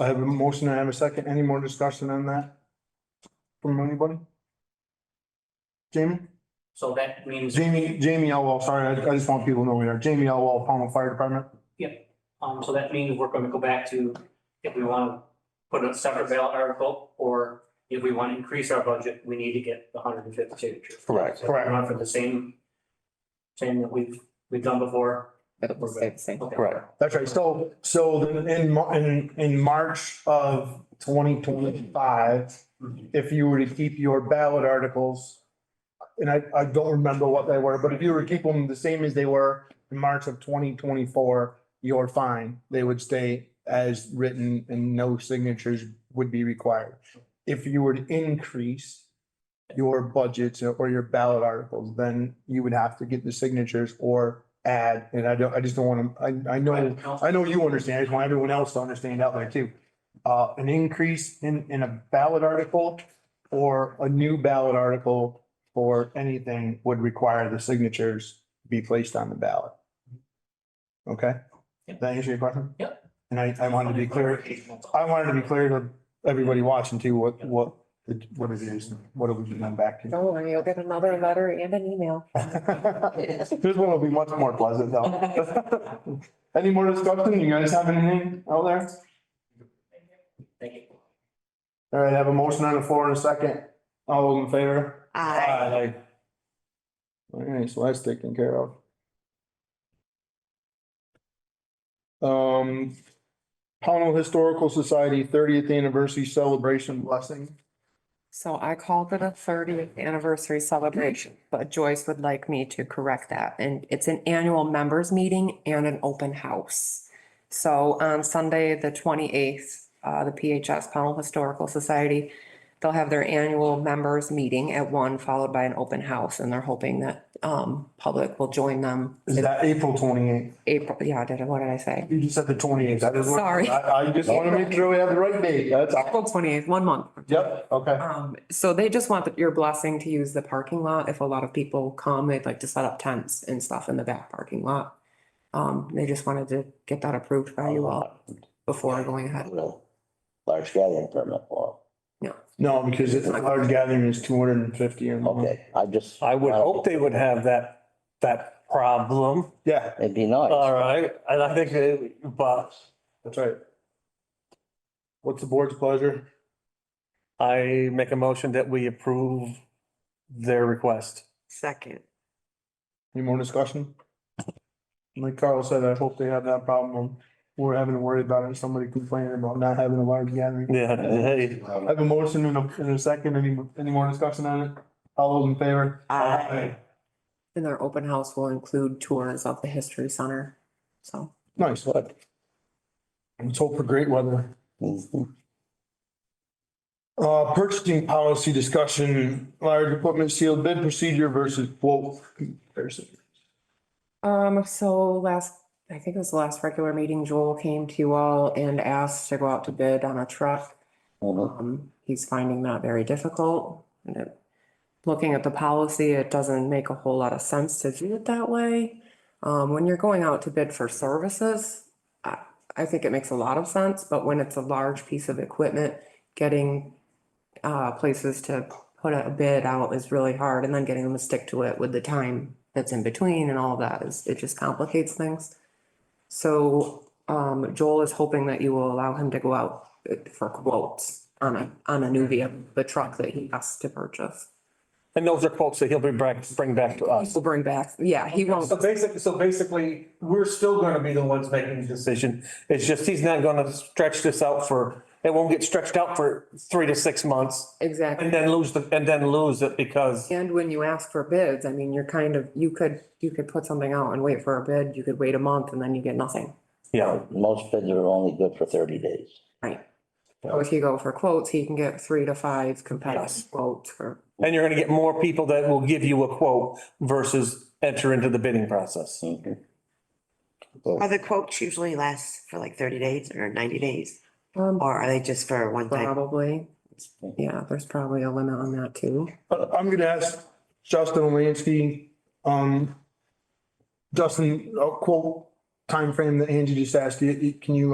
I have a motion, I have a second. Any more discussion on that? From anybody? Jamie? So that means. Jamie, Jamie Elwell, sorry, I, I just want people to know we are. Jamie Elwell, Pownell Fire Department. Um, so that means we're gonna go back to if we want to put a separate ballot article, or if we want to increase our budget, we need to get the hundred and fifty signatures. Correct. So we're going for the same, same that we've, we've done before. That was the same. Okay. Correct. That's right. So, so then in, Mar- in, in March of twenty twenty-five, Mm-hmm. if you were to keep your ballot articles, and I, I don't remember what they were, but if you were to keep them the same as they were in March of twenty twenty-four, you're fine. They would stay as written and no signatures would be required. If you were to increase your budgets or your ballot articles, then you would have to get the signatures or add, and I don't, I just don't want to, I, I know. I know you understand, I just want everyone else to understand out there too. Uh, an increase in, in a ballot article or a new ballot article for anything would require the signatures be placed on the ballot. Okay? Does that answer your question? Yep. And I, I wanted to be clear, I wanted to be clear to everybody watching too, what, what, what it is, what it would be done back to. Oh, and you'll get another letter and an email. This one will be much more pleasant though. Any more discussion? You guys have anything out there? Thank you. All right, I have a motion on the floor in a second. All those in favor? I All right, so that's taken care of. Um, Pownell Historical Society thirtieth anniversary celebration blessing. So I called it a thirtieth anniversary celebration, but Joyce would like me to correct that. And it's an annual members meeting and an open house. So on Sunday, the twenty-eighth, uh, the PHS Pownell Historical Society, they'll have their annual members meeting at one, followed by an open house, and they're hoping that, um, public will join them. Is that April twenty eighth? April, yeah, did I, what did I say? You just said the twenty eighth. Sorry. I, I just want to make sure we have the right date. That's, April twenty-eighth, one month. yep, okay. Um, so they just want your blessing to use the parking lot. If a lot of people come, they'd like to set up tents and stuff in the back parking lot. Um, they just wanted to get that approved by you all before going ahead. Large gathering permit for, No, because it's a large gathering is two hundred and fifty or more. okay, I just. Mm-hmm. uh, I would hope they would have that, that problem, Yeah, It'd be nice. all right, and I think, they- but that's right. What's the board's pleasure? I make a motion that we approve their request. Second. Any more discussion? Like Carl said, I hope they have that problem. We're having to worry about it, somebody complaining about not having a large gathering. Yeah, hey, I have a motion in a, in a second. Any, any more discussion on it? All those in favor? Aye. And their open house will include tours of the history center. So Nice. Let's hope for great weather. Mhm. Uh, purchasing policy discussion, large equipment sealed bid procedure versus quote comparison. Um, so last, I think it was the last regular meeting, Joel came to you all and asked to go out to bid on a truck. Mhm. Um, he's finding that very difficult. And it- Looking at the policy, it doesn't make a whole lot of sense to do it that way. Um, when you're going out to bid for services, I, I think it makes a lot of sense, but when it's a large piece of equipment, getting uh, places to put a bid out is really hard and then getting them to stick to it with the time that's in between and all that is, it just complicates things. So, um, Joel is hoping that you will allow him to go out for quotes on a, on a new vehicle, the truck that he has to purchase. and those are quotes that he'll be bring, bring back to us. He'll bring back, yeah, he won't, Oh. So basically, so basically, we're still gonna be the ones making the decision. It's just he's not gonna stretch this out for, it won't get stretched out for three to six months and exactly. then lose the, and then lose it because And when you ask for bids, I mean, you're kind of, you could, you could put something out and wait for a bid, you could wait a month and then you get nothing. Yeah, Most bids are only good for thirty days. So if you go for quotes, he can get three to five competitive quotes for, and you're gonna get more people that will give you a quote versus enter into the bidding process. Mhm. Are the quotes usually last for like thirty days or ninety days, um, or are they just for one time? probably. Yeah, there's probably a limit on that too. Uh, I'm gonna ask Justin Lansky, uh, um, Justin, a quote timeframe that Angie just asked you, can you